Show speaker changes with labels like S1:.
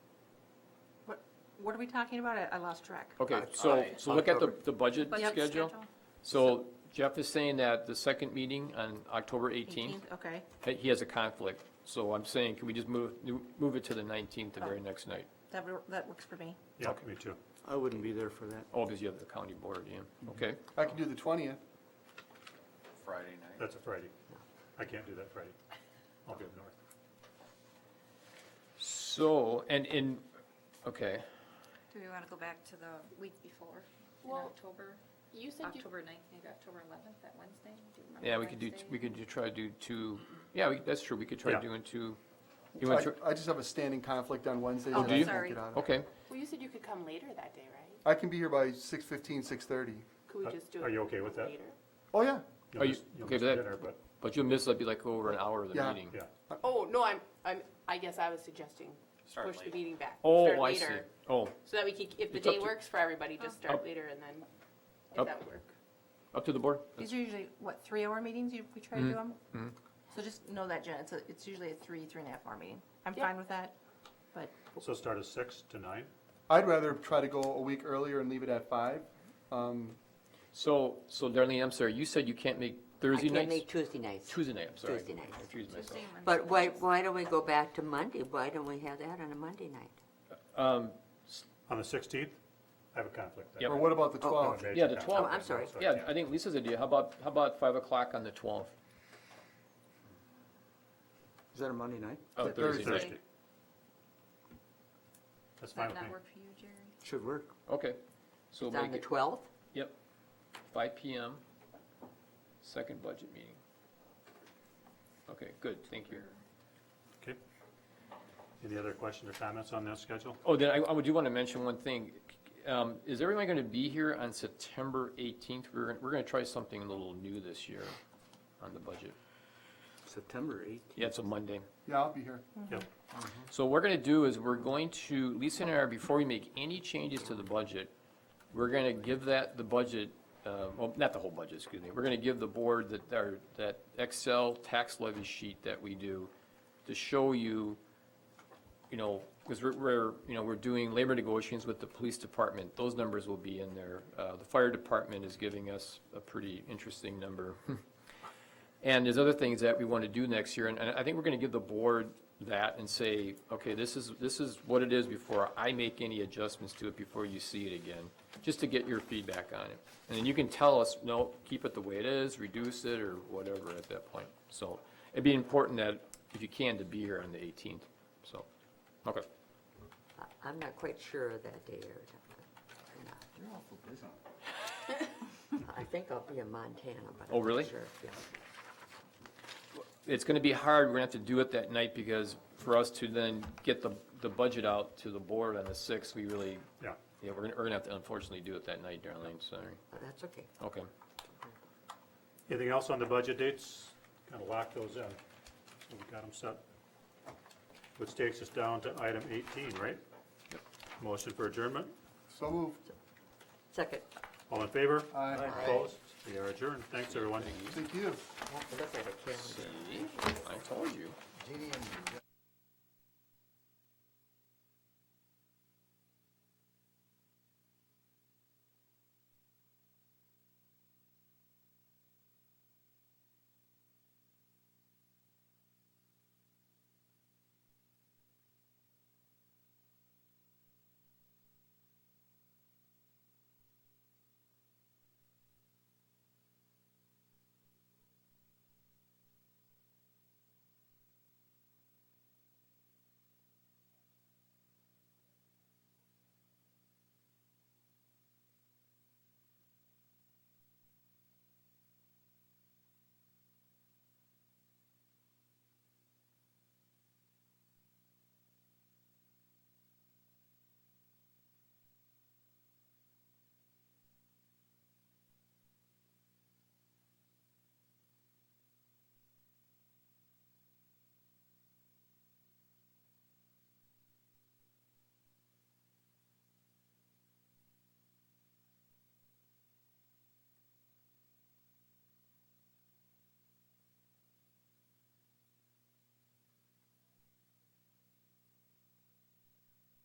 S1: what are we talking about? I- I lost track.
S2: Okay,
S3: Uh,
S2: so,
S3: aye.
S2: so look at the, the budget
S1: Budget
S2: schedule.
S1: schedule?
S2: So Jeff is saying that the second meeting on October 18th,
S1: Okay,
S2: he- he has a conflict. So I'm saying, can we just move, move it to the 19th, the very next night?
S1: that, wor- that works for me.
S4: Yeah, me too.
S5: I wouldn't be there for that.
S2: Oh, because you have the county board,
S4: Mm-hmm.
S2: yeah, okay.
S3: I can do the twentieth.
S6: Friday night.
S4: That's a Friday. I can't do that Friday. I'll be up north.
S2: So, and, and, okay,
S7: Do we want to go back to the week before, in
S8: Well,
S7: October,
S8: You said you,
S7: October ninth, maybe October eleventh, that Wednesday? Do you remember
S2: yeah, we could do,
S7: Wednesday?
S2: we could do- try to do two, yeah, we- that's true, we could try
S4: Yeah.
S2: doing two. you
S3: I,
S2: want to-
S3: I just have a standing conflict on Wednesdays
S2: Oh,
S3: and
S2: do
S3: I
S2: you?
S3: can't get out of it.
S2: Okay,
S8: well, you said you could come later that day, right?
S3: I can be here by six fifteen, six thirty.
S8: Could
S4: Uh,
S8: we just do it?
S4: are you okay with that?
S8: later?
S3: Oh, yeah.
S4: You'll
S2: Are you-
S4: miss- you'll
S2: okay,
S4: miss
S2: but that-
S4: dinner, But,
S2: but you'll miss, that'd be like over an hour of the
S3: Yeah.
S2: meeting.
S4: yeah.
S8: Oh, no, I'm, I'm, I guess I was suggesting
S6: Start
S8: push the
S6: late.
S8: meeting back. start
S2: Oh, I see,
S8: later,
S2: oh,
S8: So that we could, if the
S2: It's up
S8: day
S2: to-
S8: works for everybody, just
S2: Up-
S8: start later and then,
S2: up.
S8: if that would work.
S2: up to the board?
S1: These are usually, what, three-hour meetings you, we try to do
S2: Mm-hmm.
S1: them? So just know that, Jen, it's, a- it's usually a three, three and a half hour meeting. I'm
S8: Yep.
S1: fine with that, but
S4: So start at six to nine?
S3: I'd rather try to go a week earlier and leave it at five. Um,
S2: So, so Darlene, I'm sorry, you said you can't make Thursday
S9: I can't
S2: nights?
S9: make Tuesday nights.
S2: Tuesday night, I'm sorry.
S9: Tuesday nights.
S2: I confused myself.
S7: Tuesday, Monday,
S9: But why,
S7: Tuesday.
S9: why don't we go back to Monday? Why don't we have that on a Monday night?
S4: On the sixteenth? I have a conflict. that
S2: Yep.
S3: or
S4: day.
S3: what about the
S9: Oh,
S4: I'm
S3: twelfth?
S4: amazed
S2: Yeah,
S4: at
S2: the
S4: that.
S2: 12th.
S9: Oh, I'm sorry.
S4: So I
S2: Yeah,
S4: can't.
S2: I think Lisa's idea, how about, how about five o'clock on the twelfth?
S5: Is that a Monday night?
S2: Oh,
S3: Th-
S2: Thursday
S3: Thursday.
S2: night.
S4: That's fine
S7: Does that
S4: with
S7: not
S4: me.
S7: work for you, Jerry?
S5: Should work.
S2: Okay, so
S9: It's on
S2: make
S9: the
S2: it,
S9: twelfth?
S2: yep, five PM, second budget meeting. Okay, good, thank you.
S4: Okay. Any other questions or comments on that schedule?
S2: Oh, then I, I would do want to mention one thing. Um, is everyone going to be here on September eighteenth? We're, we're going to try something a little new this year on the budget.
S5: September eighth.
S2: Yeah, it's a Monday.
S3: Yeah, I'll be here.
S7: Mm-hmm.
S4: Yep.
S2: So what we're gonna do is we're going to, Lisa and I, are before we make any changes to the budget, we're gonna give that, the budget, uh, well, not the whole budget, excuse me, we're gonna give the board that, our, that Excel tax levy sheet that we do to show you, you know, because we're, we're, you know, we're doing labor negotiations with the police department, those numbers will be in there. Uh, the fire department is giving us a pretty interesting number. And there's other things that we want to do next year, and, and I think we're going to give the board that and say, okay, this is, this is what it is before I make any adjustments to it before you see it again, just to get your feedback on it. And then you can tell us, no, keep it the way it is, reduce it, or whatever at that point. So it'd be important that, if you can, to be here on the eighteenth, so, okay.
S9: I'm not quite sure of that day or not.
S3: You're awful busy.
S9: I think I'll be in Montana, but
S2: Oh,
S9: I'm
S2: really?
S9: not sure. Yeah.
S2: It's going to be hard, we're going to have to do it that night, because for us to then get the, the budget out to the board on the sixth, we really,
S4: Yeah.
S2: yeah, we're going to have to unfortunately do it that night, Darlene, sorry.
S9: But That's okay.
S2: Okay.
S4: Anything else on the budget dates? Kind of lock those in. So we got them set. Which takes us down to item eighteen, right? Motion for adjournment.
S3: So moved.
S9: Second,
S4: All in favor?
S3: Aye. Aye.
S4: Opposed? We are adjourned. Thanks, everyone.
S3: Thank you.
S9: I have to look at a calendar.
S2: I told you.
S6: Did he-